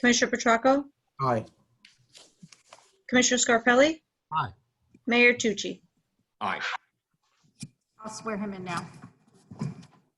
Commissioner Petracco? Aye. Commissioner Scarpelli? Aye. Mayor Tucci? Aye. I'll swear him in now.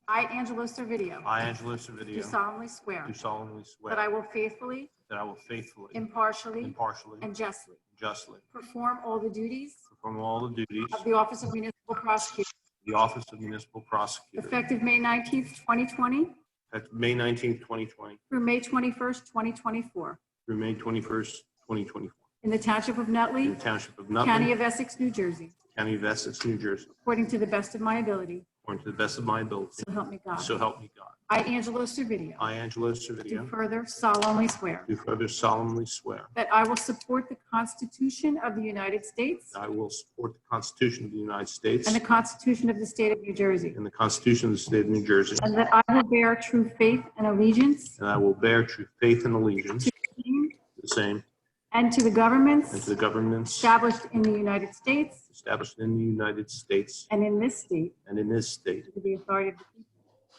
I, Angelo Servideo, I, Angelo Servideo, do solemnly swear do solemnly swear that I will faithfully, that I will faithfully, impartially, impartially, and and justly justly perform all the duties perform all the duties of of the Office of Municipal Prosecutor the Office of Municipal Prosecutor effective May 19th, 2020 effective May 19th, 2020 through May 21st, 2024 through May 21st, 2024 in the Township of in Nutley, the Township of County Nutley, of Essex, New Jersey, County of Essex, New Jersey, according to the best of my ability, according to the best of my ability. so help me God. So help me God. I, Angelo Servideo, I, Angelo do Servideo, further solemnly swear do further solemnly swear that I will support the Constitution of the United States that I will support the Constitution of the United States and the Constitution of the State of New Jersey, and the Constitution of the State of New Jersey, and that I will bear true faith and allegiance and I will bear true faith and allegiance to to the king the same and to the and to governments the governments established in the United States established in the United States and in this state and in this state to the authority of the people.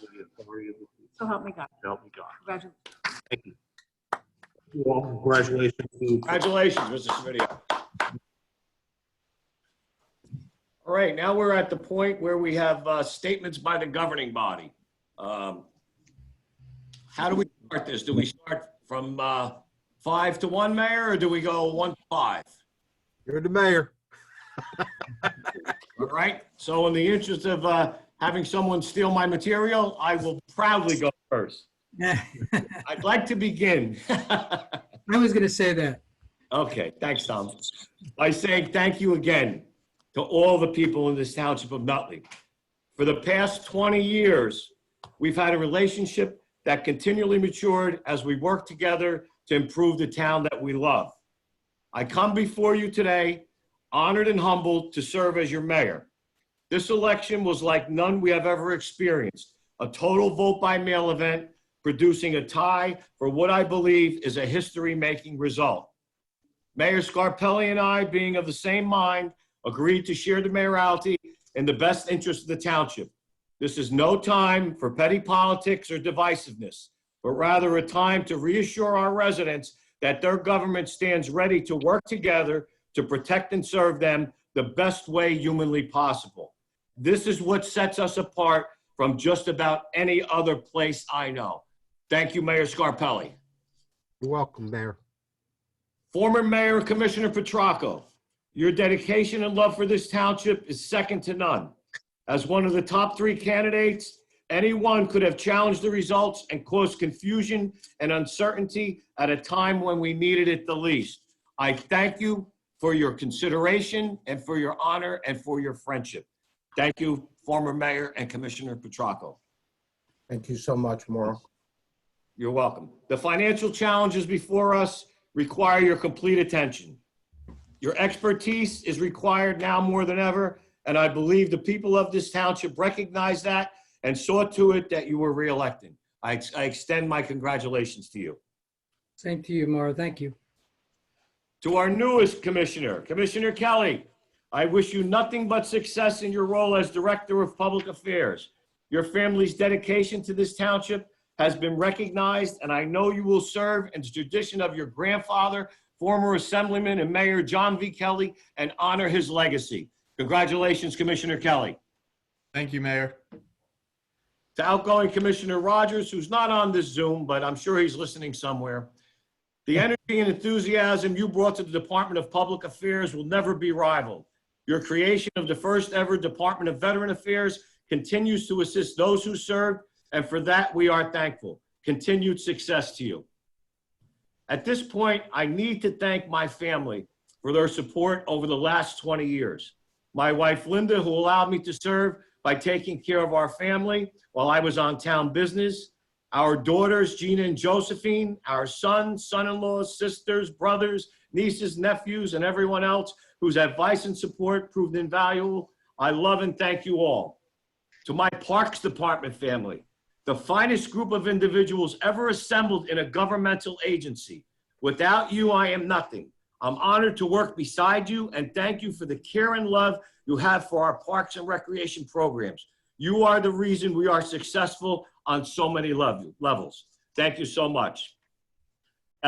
with the authority of the people. So help me God. So help me God. Congratulations. Thank you. You all, Congratulations. to- Congratulations, Mr. Smidio. All right, now we're at the point where we have uh, statements by the governing body. Um, How do we start this? Do we start from uh, five to one, Mayor, or do we go one to five? You're the mayor. All right, so in the interest of uh, having someone steal my material, I will proudly go first. I'd like to begin. I was going to say that. Okay, thanks, Tom. By saying thank you again to all the people in this township of Nutley. For the past 20 years, we've had a relationship that continually matured as we worked together to improve the town that we love. I come before you today, honored and humbled to serve as your mayor. This election was like none we have ever experienced, a total vote by mail event producing a tie for what I believe is a history-making result. Mayor Scarpelli and I, being of the same mind, agreed to share the mayoralty in the best interest of the township. This is no time for petty politics or divisiveness, but rather a time to reassure our residents that their government stands ready to work together to protect and serve them the best way humanly possible. This is what sets us apart from just about any other place I know. Thank you, Mayor Scarpelli. You're welcome, Mayor. Former Mayor Commissioner Petracco, your dedication and love for this township is second to none. As one of the top three candidates, anyone could have challenged the results and caused confusion and uncertainty at a time when we needed it the least. I thank you for your consideration and for your honor and for your friendship. Thank you, former Mayor and Commissioner Petracco. Thank you so much, Maura. You're welcome. The financial challenges before us require your complete attention. Your expertise is required now more than ever, and I believe the people of this township recognize that and saw to it that you were reelected. I ex- I extend my congratulations to you. Same to you, Mara. Thank you. To our newest commissioner, Commissioner Kelly, I wish you nothing but success in your role as Director of Public Affairs. Your family's dedication to this township has been recognized, and I know you will serve in the tradition of your grandfather, former Assemblyman and Mayor John V. Kelly, and honor his legacy. Congratulations, Commissioner Kelly. Thank you, Mayor. To outgoing Commissioner Rogers, who's not on this Zoom, but I'm sure he's listening somewhere. The energy and enthusiasm you brought to the Department of Public Affairs will never be rivaled. Your creation of the first ever Department of Veteran Affairs continues to assist those who served, and for that, we are thankful. Continued success to you. At this point, I need to thank my family for their support over the last 20 years. My wife Linda, who allowed me to serve by taking care of our family while I was on town business, our daughters Gina and Josephine, our sons, son-in-laws, sisters, brothers, nieces, nephews, and everyone else whose advice and support proved invaluable. I love and thank you all. To my Parks Department family, the finest group of individuals ever assembled in a governmental agency. Without you, I am nothing. I'm honored to work beside you and thank you for the care and love you have for our parks and recreation programs. You are the reason we are successful on so many lev- levels. Thank you so much.